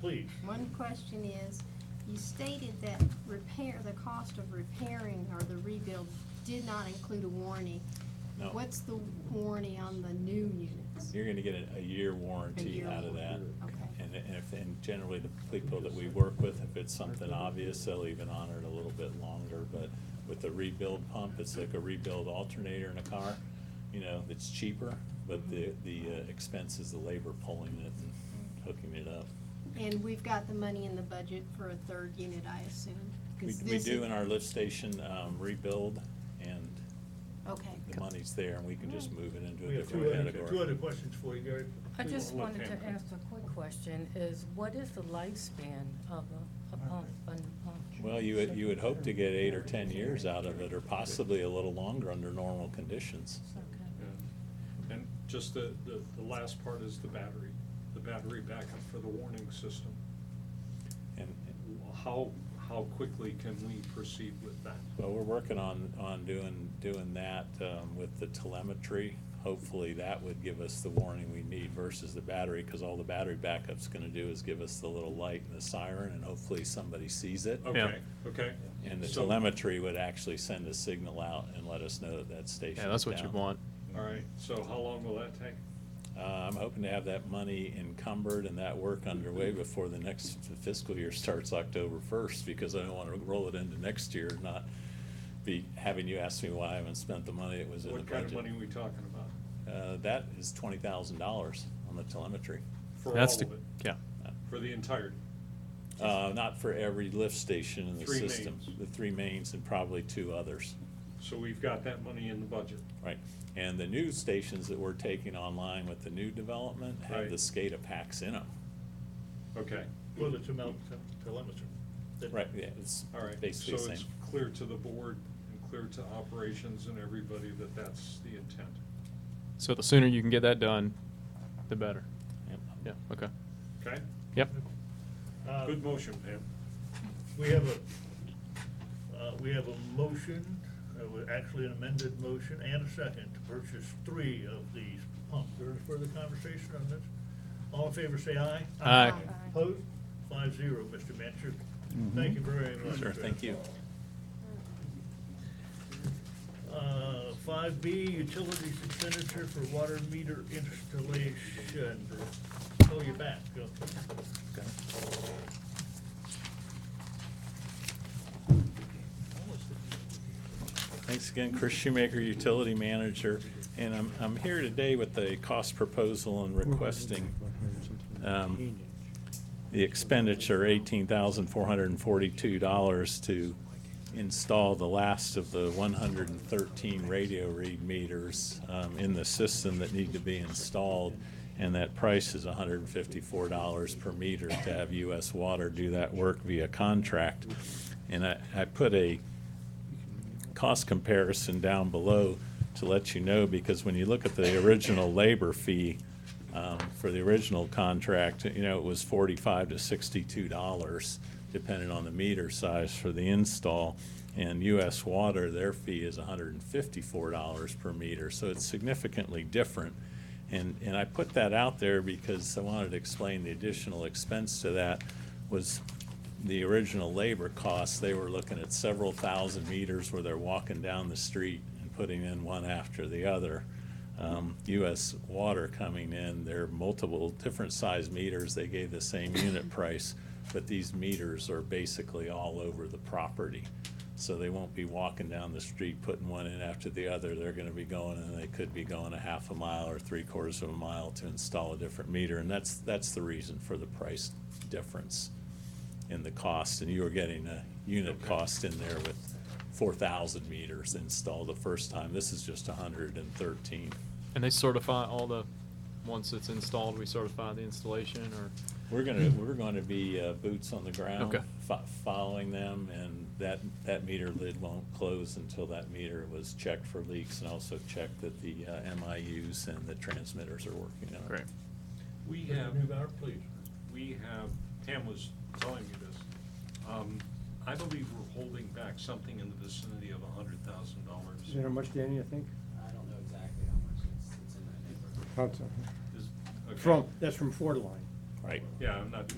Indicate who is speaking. Speaker 1: Please.
Speaker 2: One question is, you stated that repair, the cost of repairing or the rebuild did not include a warranty.
Speaker 3: No.
Speaker 2: What's the warranty on the new units?
Speaker 3: You're gonna get a, a year warranty
Speaker 2: year
Speaker 3: out of that.
Speaker 2: warranty, okay.
Speaker 3: And, and if, and generally the people that we work with, if it's something obvious, they'll even honor it a little bit longer, but with the rebuild pump, it's like a rebuild alternator in a car, you know, it's cheaper, but the, the uh, expense is the labor pulling it and hooking it up.
Speaker 2: And we've got the money in the budget for a third unit, I assume?
Speaker 3: We,
Speaker 2: 'cause
Speaker 3: we
Speaker 2: this
Speaker 3: do
Speaker 2: is-
Speaker 3: in our lift station, um, rebuild, and
Speaker 2: Okay.
Speaker 3: the money's there, and we can just move it into
Speaker 1: We
Speaker 3: a
Speaker 1: have two
Speaker 3: different
Speaker 1: other,
Speaker 3: category.
Speaker 1: two other questions for you, Gary.
Speaker 4: I
Speaker 1: We
Speaker 4: just
Speaker 1: won't
Speaker 4: wanted
Speaker 1: let
Speaker 4: to
Speaker 1: Pam-
Speaker 4: ask a quick question, is what is the lifespan of a, a pump, a new pump?
Speaker 3: Well, you would, you would hope to get eight or ten years out of it, or possibly a little longer under normal conditions.
Speaker 4: Okay.
Speaker 5: Yeah. And just the, the, the last part is the battery, the battery backup for the warning system.
Speaker 3: And,
Speaker 5: How, how quickly can we proceed with that?
Speaker 3: well, we're working on, on doing, doing that, um, with the telemetry. Hopefully, that would give us the warning we need versus the battery, because all the battery backup's gonna do is give us the little light and the siren, and hopefully somebody sees it.
Speaker 5: Okay, okay.
Speaker 3: And the
Speaker 5: So-
Speaker 3: telemetry would actually send a signal out and let us know that that station
Speaker 6: Yeah, that's
Speaker 3: is
Speaker 6: what you
Speaker 3: down.
Speaker 6: want.
Speaker 5: All right, so how long will that take?
Speaker 3: Uh, I'm hoping to have that money encumbered and that work underway before the next fiscal year starts October first, because I don't want to roll it into next year, and not be having you ask me why I haven't spent the money that was in the
Speaker 5: What kind of
Speaker 3: budget.
Speaker 5: money are we talking about?
Speaker 3: Uh, That is twenty thousand dollars on the telemetry.
Speaker 5: For all
Speaker 6: That's
Speaker 5: of
Speaker 6: the-
Speaker 5: it?
Speaker 6: Yeah.
Speaker 5: For the entirety?
Speaker 3: Uh, Not for every lift station in the
Speaker 5: Three
Speaker 3: system.
Speaker 5: mains.
Speaker 3: The three mains and probably two others.
Speaker 5: So we've got that money in the budget?
Speaker 3: Right, and the new stations that we're taking online with the new development have
Speaker 5: Right.
Speaker 3: the SCADA packs in them.
Speaker 5: Okay,
Speaker 1: Well, the tele- telemetry. that-
Speaker 3: Right, yeah, it's
Speaker 5: all right.
Speaker 3: basically the
Speaker 5: So
Speaker 3: same.
Speaker 5: it's clear to the board and clear to operations and everybody that that's the intent.
Speaker 6: So the sooner you can get that done, the better.
Speaker 3: Yep.
Speaker 6: Yeah, okay.
Speaker 5: Okay?
Speaker 6: Yep.
Speaker 1: Uh,
Speaker 5: Good motion, Pam.
Speaker 1: We have a, uh, we have a motion, uh, well, actually an amended motion and a second to purchase three of these pumps. There is further conversation on this? All in favor, say aye.
Speaker 6: Aye.
Speaker 4: Aye.
Speaker 1: Opposed? Five zero, Mr. Mancher. Thank you very much.
Speaker 3: Mm-hmm. Sure,
Speaker 1: sir.
Speaker 3: thank you.
Speaker 1: Uh, Five B, utilities expenditure for water meter installation. Oh, you're back. Okay.
Speaker 3: Thanks again, Chris Shoemaker, Utility Manager, and I'm, I'm here today with a cost proposal and requesting um, the expenditure, eighteen thousand four hundred and forty-two dollars to install the last of the one hundred and thirteen radio read meters um, in the system that need to be installed, and that price is hundred and fifty-four dollars per meter to have U.S. Water do that work via contract. And I, I put a cost comparison down below to let you know, because when you look at the original labor fee um, for the original contract, you know, it was forty-five to sixty-two dollars, depending on the meter size for the install. And U.S. Water, their fee is hundred and fifty-four dollars per meter, so it's significantly different. And, and I put that out there because I wanted to explain the additional expense to that was the original labor costs, they were looking at several thousand meters where they're walking down the street and putting in one after the other. Um, US Water coming in, there are multiple different size meters, they gave the same unit price, but these meters are basically all over the property. So they won't be walking down the street putting one in after the other, they're gonna be going, and they could be going a half a mile or three quarters of a mile to install a different meter, and that's, that's the reason for the price difference in the cost, and you were getting a unit cost in there with four thousand meters installed the first time. This is just hundred and thirteen.
Speaker 6: And they certify all the, once it's installed, we certify the installation or?
Speaker 3: We're gonna, we're gonna be uh, boots on the ground,
Speaker 6: Hmm. Okay.
Speaker 3: fo- following them, and that, that meter lid won't close until that meter was checked for leaks and also checked that the uh, MIUs and the transmitters are working on it.
Speaker 6: Great.
Speaker 5: We have.
Speaker 1: Mr. Newbauer, please.
Speaker 5: we have, Pam was telling me this, um, I believe we're holding back something in the vicinity of a hundred thousand
Speaker 7: Is there
Speaker 5: dollars.
Speaker 7: much, Danny, I think?
Speaker 8: I don't know exactly how much it's, it's in that neighborhood.
Speaker 7: From, that's from Ford Line.
Speaker 3: Right.
Speaker 5: Yeah, I'm not,